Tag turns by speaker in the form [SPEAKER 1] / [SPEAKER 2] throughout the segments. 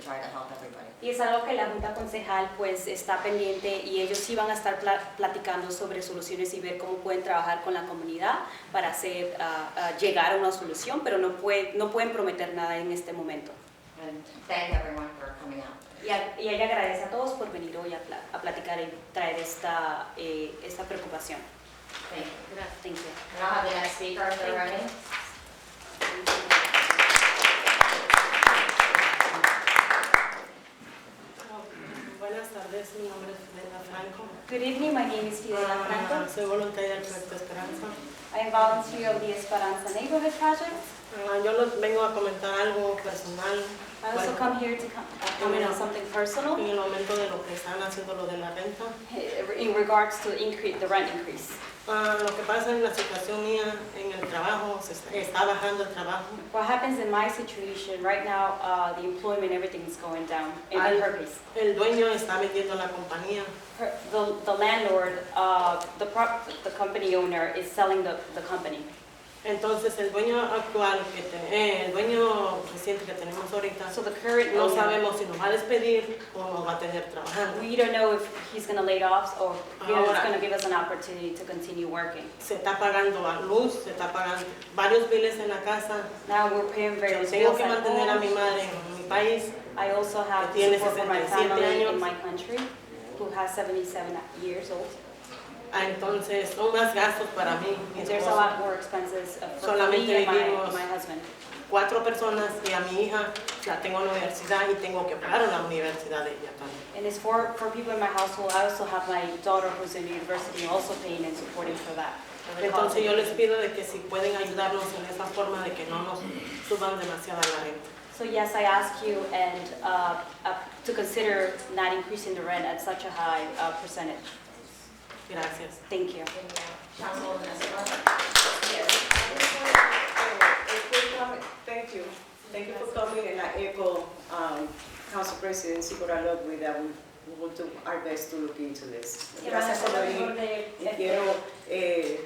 [SPEAKER 1] try to help everybody.
[SPEAKER 2] Y es algo que la Junta Concejal pues está pendiente y ellos sí van a estar pla- platicando sobre soluciones y ver cómo pueden trabajar con la comunidad para hacer, ah, ah, llegar a una solución, pero no, puede, no pueden prometer nada en este momento.
[SPEAKER 1] And thank everyone for coming out.
[SPEAKER 2] Y, a- y ella agradece a todos por venir hoy a, pla- a platicar y traer esta, eh, esta preocupación.
[SPEAKER 1] Thank you.
[SPEAKER 2] Thank you.
[SPEAKER 1] And I'll have the next speaker if they're ready.
[SPEAKER 3] Buenas tardes, mi nombre es Brenda Franco.
[SPEAKER 2] Good evening, my name is Fidela
[SPEAKER 3] Ah,
[SPEAKER 2] Franco.
[SPEAKER 3] Soy voluntaria del Proyecto Esperanza.
[SPEAKER 2] I am volunteer of the Esperanza Neighborhood Project.
[SPEAKER 3] Ah, yo les vengo a comentar algo personal.
[SPEAKER 2] I also
[SPEAKER 3] Bueno,
[SPEAKER 2] come here to com- uh, comment on something personal
[SPEAKER 3] en el momento de lo que están haciendo lo de la renta.
[SPEAKER 2] in regards to increase, the rent increase.
[SPEAKER 3] Ah, lo que pasa en la situación mía en el trabajo, se está, está bajando el trabajo.
[SPEAKER 2] What happens in my situation right now, uh, the employment, everything is going down in
[SPEAKER 3] I-
[SPEAKER 2] her case.
[SPEAKER 3] El dueño está vendiendo la compañía.
[SPEAKER 2] Her- The, the landlord, uh, the prop, the company owner is selling the, the company.
[SPEAKER 3] Entonces el dueño actual, que te- eh, el dueño reciente que tenemos ahorita,
[SPEAKER 2] So the current
[SPEAKER 3] no
[SPEAKER 2] owner,
[SPEAKER 3] sabemos si nos va a despedir o nos va a tener trabajando.
[SPEAKER 2] we don't know if he's gonna lay off or he's
[SPEAKER 3] Ahora.
[SPEAKER 2] gonna give us an opportunity to continue working.
[SPEAKER 3] se está pagando la luz, se está pagando varios biles en la casa.
[SPEAKER 2] Now we're paying various
[SPEAKER 3] Tengo
[SPEAKER 2] bills
[SPEAKER 3] que
[SPEAKER 2] at
[SPEAKER 3] mantener a mi
[SPEAKER 2] home.
[SPEAKER 3] madre en mi país.
[SPEAKER 2] I also have
[SPEAKER 3] que tiene
[SPEAKER 2] support for my
[SPEAKER 3] 67
[SPEAKER 2] family in
[SPEAKER 3] años.
[SPEAKER 2] my country, who has seventy-seven years old.
[SPEAKER 3] Ah, Entonces son más gastos para mí. mi
[SPEAKER 2] And there's a
[SPEAKER 3] esposo.
[SPEAKER 2] lot more expenses uh, for me
[SPEAKER 3] Solamente
[SPEAKER 2] and my,
[SPEAKER 3] vivimos-
[SPEAKER 2] my husband.
[SPEAKER 3] Cuatro personas y a mi hija la tengo en la universidad y tengo que pagar la universidad de ella también.
[SPEAKER 2] And it's for, for people in my household, I also have my daughter who's in university, also paying and supporting for that. for the cost.
[SPEAKER 3] Entonces yo les pido de que si pueden ayudarnos en esa forma de que no nos suban demasiado la renta.
[SPEAKER 2] So yes, I ask you and, uh, uh, to consider not increasing the rent at such a high uh, percentage.
[SPEAKER 3] Gracias.
[SPEAKER 2] Thank you.
[SPEAKER 1] Councilwoman Escobar.
[SPEAKER 4] Thank you. Thank you for coming, and I echo um, Council President Sikora Lobwe that we we will do our best to look into this. Gracias por venir. Y quiero eh,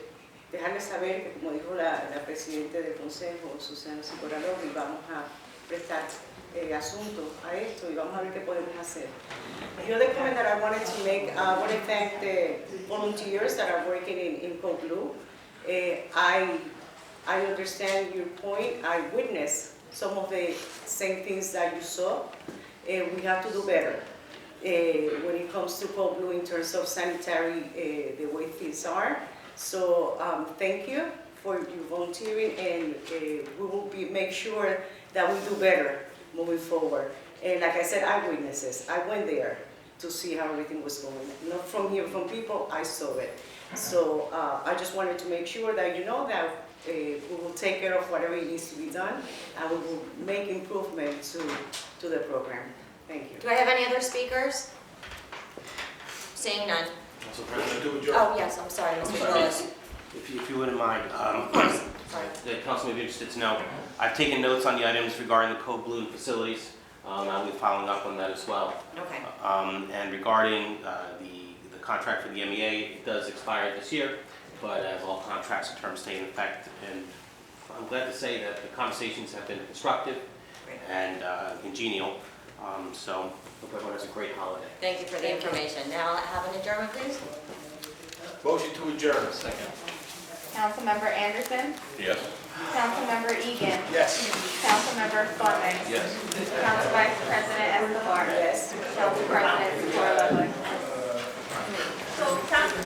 [SPEAKER 4] dejarles saber, que, como dijo la, la Presidenta del Consejo, Susana Sikora Lobwe, vamos a prestar eh, asunto a esto y vamos a ver qué podemos hacer. The other comment that I wanted to make, I want to thank the volunteers that are working in, in Coglu. Eh, I, I understand your point, I witnessed some of the same things that you saw. Eh, we have to do better eh, when it comes to Coglu in terms of sanitary, eh, the way things are. So, um, thank you for your volunteering and eh, we will be, make sure that we do better moving forward. And like I said, eyewitnesses, I went there to see how everything was going. Not from here, from people, I saw it. So uh, I just wanted to make sure that you know that uh, we will take care of whatever needs to be done and we will make improvement to, to the program. Thank you.
[SPEAKER 1] Do I have any other speakers? Seeing none.
[SPEAKER 5] Council President Cubajo.
[SPEAKER 1] Oh, yes, I'm sorry, Mr.
[SPEAKER 5] sorry.
[SPEAKER 1] Velez.
[SPEAKER 5] If you, if you wouldn't mind, um,
[SPEAKER 1] Sorry.
[SPEAKER 5] the council may be interested to know, I've taken notes on the items regarding the code blue facilities. Um, I'll be following up on that as well.
[SPEAKER 1] Okay.
[SPEAKER 5] Um, and regarding, uh, the, the contract for the MEA, it does expire this year, but as all contracts and terms stay in effect, and I'm glad to say that the conversations have been constructive
[SPEAKER 1] Great.
[SPEAKER 5] and, uh, congenial. Um, so, hope everyone has a great holiday.
[SPEAKER 1] Thank you for the information. Now, have an adjournment, please.
[SPEAKER 6] Motion to adjourn. Second.
[SPEAKER 7] Councilmember Anderson.
[SPEAKER 6] Yes.
[SPEAKER 7] Councilmember Egan.
[SPEAKER 6] Yes.
[SPEAKER 7] Councilmember Fleming.
[SPEAKER 6] Yes.
[SPEAKER 7] Council Vice President Escobar. Council President Sikora Ludwig.